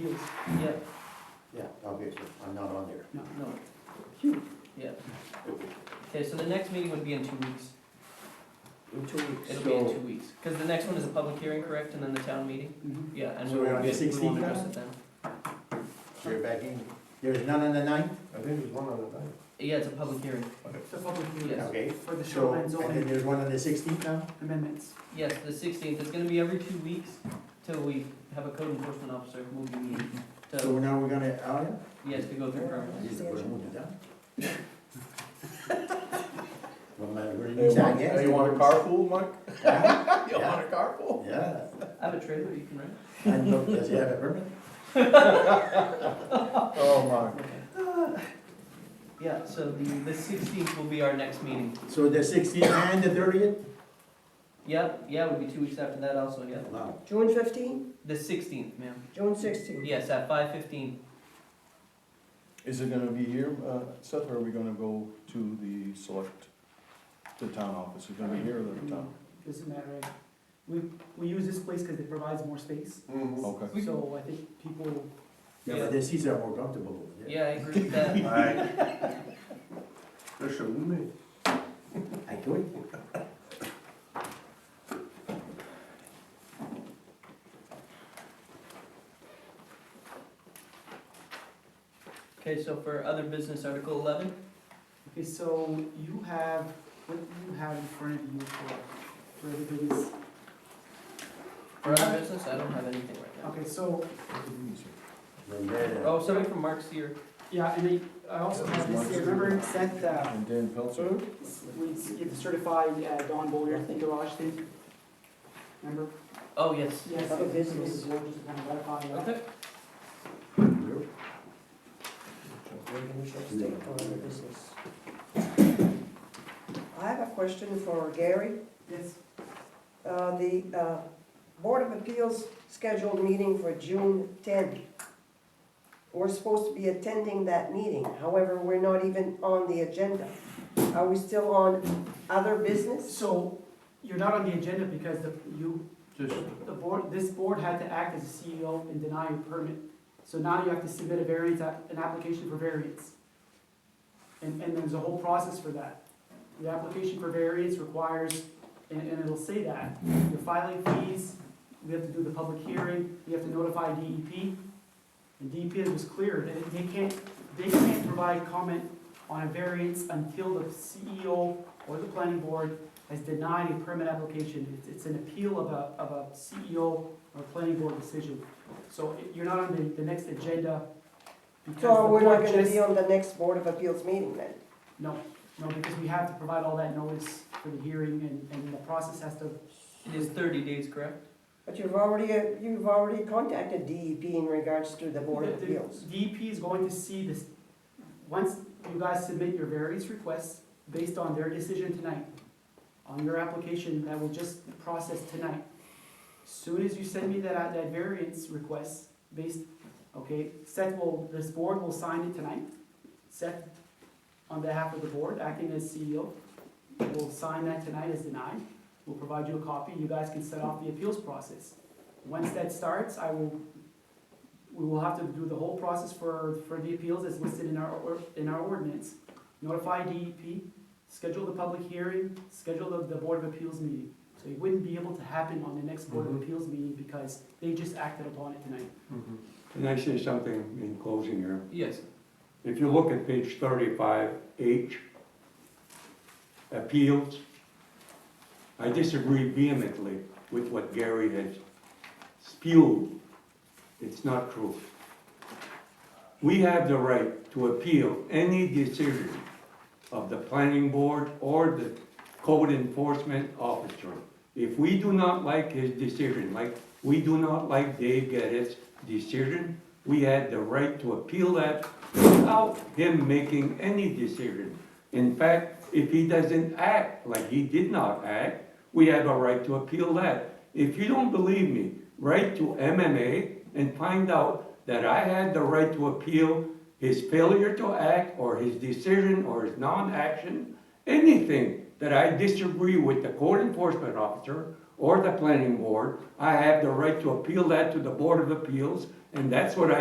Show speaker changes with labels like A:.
A: Huge, yeah,
B: Yeah, obviously, I'm not on there.
A: no, no, huge, yeah. Okay, so the next meeting would be in two weeks,
C: In two weeks.
A: it'll be in
B: So-
A: two weeks, because the next one is a public hearing, correct, and then the town meeting?
C: Mhm.
A: Yeah, and
B: So
A: we
B: we're
A: won't
B: on
A: be, we
B: 16th
A: won't
B: now?
A: address it then.
B: So you're back in, there's none on the ninth?
D: I think there's one on the ninth.
A: Yeah, it's a public hearing,
C: The public
A: Yes.
C: hearing
B: Okay,
C: for the
B: so,
C: shoreline
B: and then
C: zoning
B: there's one on the sixteenth now?
C: amendments.
A: yes, the sixteenth, it's gonna be every two weeks till we have a code enforcement officer who will be meeting,
B: So
A: to,
B: now we're gonna, oh, yeah?
A: yes, to go through permits.
B: Is it we're moving down? Well, my, we're
D: Hey, you
B: inside,
D: want-
B: yes.
D: hey, you want a carpool, Mike?
B: Yeah,
D: You want a carpool?
B: Yeah,
A: I have a trailer you can rent.
B: and look, does he have a permit?
D: Oh, my.
A: Yeah, so the, the sixteenth will be our next meeting.
B: So the sixteenth and the thirtieth?
A: Yep, yeah, it would be two weeks after that also, yeah.
B: Wow,
E: June fifteenth,
A: The sixteenth, ma'am.
E: June sixteenth.
A: Yes, at five fifteen.
D: Is it gonna be here, uh, Seth, or are we gonna go to the select, to the town office? Is it gonna be here or the town?
C: Doesn't matter. We, we use this place because it provides more space.
D: Okay.
A: We-
C: So I think people,
B: yeah, but the seats are more comfortable over there.
A: Yeah, I agree with that.
D: Alright. They're showing me.
B: I could,
A: Okay, so for other business, Article eleven,
C: okay, so you have, what you have in front of you for, for everybody's.
A: for other business, I don't have anything right now.
C: Okay, so,
B: We're there.
A: Oh, somebody from Mark's here.
C: yeah, and I, I also have this, here. remember Seth, uh,
D: And Dan Pelzer?
C: we certified uh, Don Boyer, I think, garage thing? Remember?
A: Oh, yes.
C: Yes.
E: Other business.
C: We'll just kind of ratify that.
A: Okay,
E: I have a question for Gary.
C: Yes,
E: Uh, The uh, Board of Appeals scheduled meeting for June 10. We're supposed to be attending that meeting, however, we're not even on the agenda. Are we still on other business?
C: so you're not on the agenda because the, you,
D: Just.
C: the board, this board had to act as a CEO and deny your permit. So now you have to submit a variance, app- an application for variance. And, and there's a whole process for that. The application for variance requires, and, and it'll say that, your filing fees, we have to do the public hearing, you have to notify DEP. And E DEP was clear, that they can't, they can't provide comment on a variance until the CEO or the planning board has denied a permit application. It's- It's an appeal of a, of a CEO or planning board decision. So it- you're not on the, the next agenda because the
E: So we're not
C: board
E: gonna
C: just-
E: be on the next Board of Appeals meeting then?
C: No, no, because we have to provide all that notice for the hearing and, and the process has to,
A: it is thirty days, correct?
E: But you've already, uh, you've already contacted DEP in regards to the Board of
C: The- the
E: Appeals.
C: DEP is going to see this, once you guys submit your various requests based on their decision tonight, on your application that will just process tonight. Soon as you send me that, that variance request based, okay, Seth will, this board will sign it tonight. Seth, on behalf of the board, acting as CEO, will sign that tonight as denied. We'll provide you a copy, you guys can set off the appeals process. Once that starts, I will we will have to do the whole process for, for the appeals as listed in our, or- in our ordinance. Notify DEP, schedule the public hearing, schedule the, the Board of Appeals meeting. So it wouldn't be able to happen on the next Board of
D: Mhm.
C: Appeals meeting because they just acted upon it tonight.
F: Can I say something in closing here?
A: Yes.
F: If you look at page thirty-five, H, appeals, I disagree vehemently with what Gary has spewed. It's not true. We have the right to appeal any decision of the planning board or the code enforcement officer. If we do not like his decision, like we do not like Dave Geddes' decision, we had the right to appeal that without him making any decision. In fact, if he doesn't act like he did not act, we have a right to appeal that. If you don't believe me, write to MMA and find out that I had the right to appeal his failure to act or his decision or his non-action, anything that I disagree with the code enforcement officer or the planning board, I have the right to appeal that to the Board of Appeals And that's what I